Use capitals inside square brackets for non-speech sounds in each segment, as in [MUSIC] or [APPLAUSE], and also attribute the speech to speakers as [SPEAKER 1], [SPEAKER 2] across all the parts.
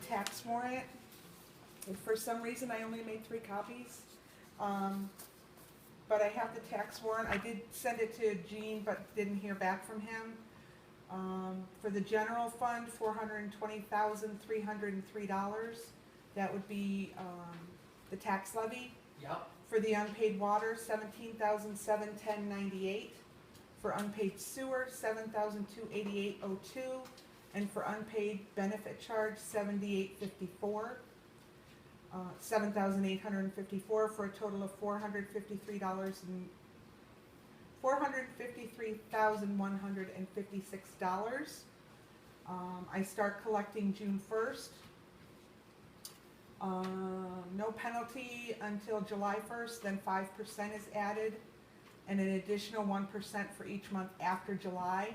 [SPEAKER 1] tax warrant. And for some reason, I only made three copies. Um, but I have the tax warrant. I did send it to Gene, but didn't hear back from him. Um, for the general fund, four hundred and twenty thousand, three hundred and three dollars. That would be, um, the tax levy.
[SPEAKER 2] Yep,
[SPEAKER 1] For the unpaid water, seventeen thousand seven ten ninety-eight. For unpaid sewer, seven thousand two eighty-eight oh two. And for unpaid benefit charge, seventy-eight fifty-four. Uh, seven thousand eight hundred and fifty-four for a total of four hundred fifty-three dollars and, four hundred fifty-three thousand one hundred and fifty-six dollars. Um, I start collecting June first. Um, no penalty until July first, then five percent is added, and an additional one percent for each month after July.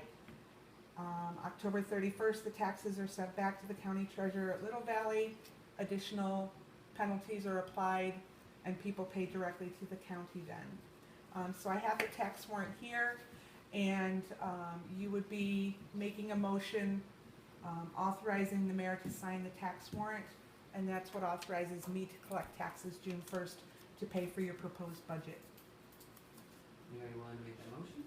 [SPEAKER 1] Um, October thirty-first, the taxes are sent back to the county treasurer at Little Valley. Additional penalties are applied, and people pay directly to the county then. Um, so I have the tax warrant here, and, um, you would be making a motion, um, authorizing the mayor to sign the tax warrant and that's what authorizes me to collect taxes June first to pay for your proposed budget.
[SPEAKER 2] Mary, you wanna make the motion?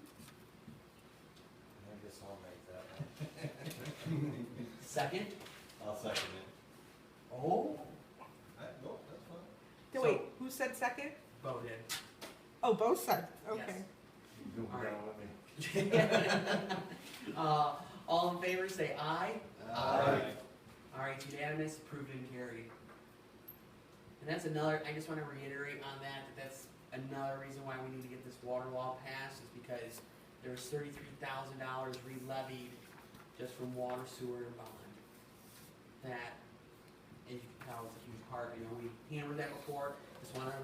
[SPEAKER 3] I guess I'll make that one.
[SPEAKER 2] Second?
[SPEAKER 3] [LAUGHS] I'll second it.
[SPEAKER 2] Oh.
[SPEAKER 3] no, that's fine.
[SPEAKER 1] So wait, who said second?
[SPEAKER 2] Voted. [LAUGHS]
[SPEAKER 1] Oh, both said, okay.
[SPEAKER 2] Yes.
[SPEAKER 3] You do
[SPEAKER 2] All right.
[SPEAKER 3] down with me.
[SPEAKER 2] Uh, all in favor, say aye.
[SPEAKER 3] Aye.
[SPEAKER 2] All right, unanimous, approved and carried. And that's another, I just wanna reiterate on that, that that's another reason why we need to get this water law passed, is because there was thirty-three thousand dollars re-levied just from water, sewer, and bond. That, as you can tell, is a huge part, you know, we hammered that before, just wanna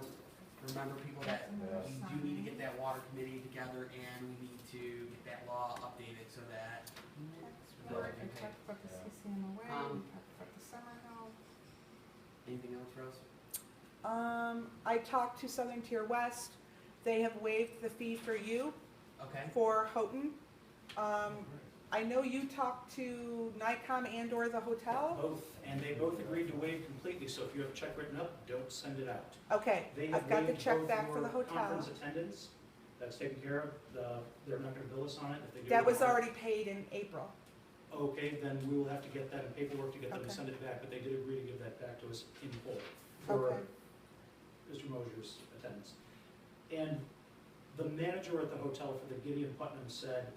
[SPEAKER 2] remember people that we do need to get that water committee together, and we need to get that law updated so that,
[SPEAKER 1] Tax warrant, I talked about the CCMOA, we talked
[SPEAKER 2] Um,
[SPEAKER 1] about the summer help.
[SPEAKER 2] anything else, Rose?
[SPEAKER 1] Um, I talked to Southern Tier West, they have waived the fee for you,
[SPEAKER 2] Okay?
[SPEAKER 1] for Houghton. Um, I know you talked to Nikon and or the hotel,
[SPEAKER 4] Both, and they both agreed to waive completely, so if you have a check written up, don't send it out.
[SPEAKER 1] okay,
[SPEAKER 4] They have
[SPEAKER 1] I've got the
[SPEAKER 4] waived
[SPEAKER 1] check
[SPEAKER 4] both
[SPEAKER 1] back for the
[SPEAKER 4] your
[SPEAKER 1] hotel.
[SPEAKER 4] Conference attendance, that's taken care of, the, they're not gonna bill us on it, if they do.
[SPEAKER 1] That
[SPEAKER 4] we
[SPEAKER 1] was
[SPEAKER 4] don't-
[SPEAKER 1] already paid in April.
[SPEAKER 4] Okay, then we will have to get that in paperwork to get them
[SPEAKER 1] Okay.
[SPEAKER 4] to send it back, but they did agree to give that back to us in full
[SPEAKER 1] Okay.
[SPEAKER 4] for Mr. Mosier's attendance. And the manager at the hotel for the Gideon Putnam said,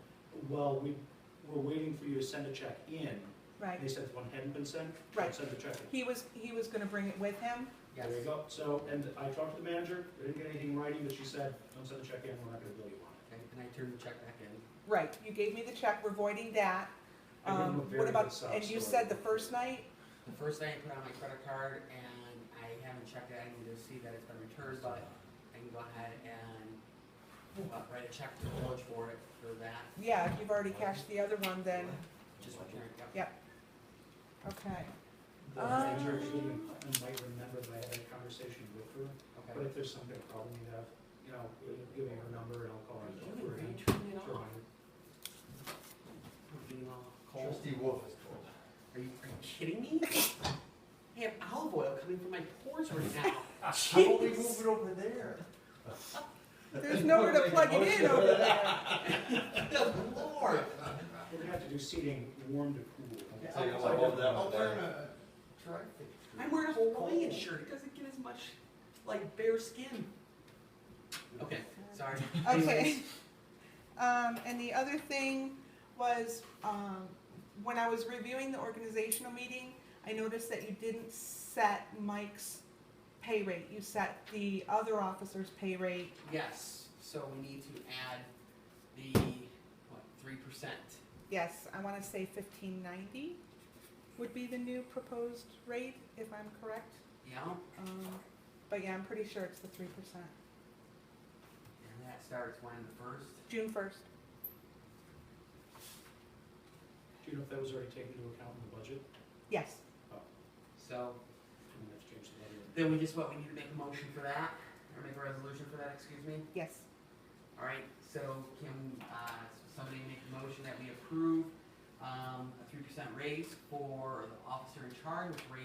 [SPEAKER 4] well, we, we're waiting for you to send a check in.
[SPEAKER 1] Right,
[SPEAKER 4] They said the one hadn't been sent,
[SPEAKER 1] Right.
[SPEAKER 4] send the check in.
[SPEAKER 1] he was, he was gonna bring it with him,
[SPEAKER 2] Yes.
[SPEAKER 4] There you go. So, and I talked to the manager, I didn't get anything in writing, but she said, don't send the check in, we're not gonna bill you on it.
[SPEAKER 2] Okay, and I turned the check back in.
[SPEAKER 1] right, you gave me the check, we're voiding that.
[SPEAKER 4] I gave him
[SPEAKER 1] Um,
[SPEAKER 4] a very
[SPEAKER 1] what about,
[SPEAKER 4] good sob
[SPEAKER 1] and you
[SPEAKER 4] story.
[SPEAKER 1] said the first night,
[SPEAKER 2] The first night I put on my credit card and I haven't checked it, I need to see that it's been returned, but I can go ahead and uh, write a check to the village for it, for that,
[SPEAKER 1] yeah, if you've already cashed the other one, then,
[SPEAKER 2] just return it, yep.
[SPEAKER 1] okay.
[SPEAKER 4] The
[SPEAKER 1] Um.
[SPEAKER 4] manager at Gideon Putnam might remember that I had a conversation with her, but
[SPEAKER 2] Okay.
[SPEAKER 4] if there's some kind of problem you have, you know, give me her number and I'll call her. and go
[SPEAKER 2] You
[SPEAKER 4] through
[SPEAKER 2] would
[SPEAKER 4] it.
[SPEAKER 2] be turning it
[SPEAKER 4] Sure,
[SPEAKER 2] off.
[SPEAKER 4] Ryan.
[SPEAKER 2] We're getting all cold.
[SPEAKER 3] Trustee Wolf is cold.
[SPEAKER 2] Are you, are you kidding me? I have olive oil coming from my pores right now.
[SPEAKER 3] How about we move it over there?
[SPEAKER 1] There's nowhere to plug it in over there.
[SPEAKER 2] Good lord.
[SPEAKER 4] We're gonna have to do seating warm to cool.
[SPEAKER 2] Yeah.
[SPEAKER 3] So you're like,
[SPEAKER 2] Oh,
[SPEAKER 3] oh, there.
[SPEAKER 2] I'm wearing a Hawaiian shirt. It doesn't get as much like bare skin. Okay, sorry.
[SPEAKER 1] Okay. Um, and the other thing was, um, when I was reviewing the organizational meeting, I noticed that you didn't set Mike's pay rate, you set the other officer's pay rate.
[SPEAKER 2] Yes, so we need to add the, what, three percent?
[SPEAKER 1] Yes, I wanna say fifteen ninety would be the new proposed rate, if I'm correct.
[SPEAKER 2] Yeah,
[SPEAKER 1] Um, but yeah, I'm pretty sure it's the three percent,
[SPEAKER 2] and that starts when, the first?
[SPEAKER 1] June first.
[SPEAKER 4] Do you know if that was already taken into account in the budget?
[SPEAKER 1] Yes,
[SPEAKER 2] So,
[SPEAKER 4] I'm gonna have to change the budget.
[SPEAKER 2] then we just, what, we need to make a motion for that? Or make a resolution for that, excuse me?
[SPEAKER 1] yes.
[SPEAKER 2] All right, so can, uh, somebody make a motion that we approve, um, a three percent raise for the officer in charge, which raise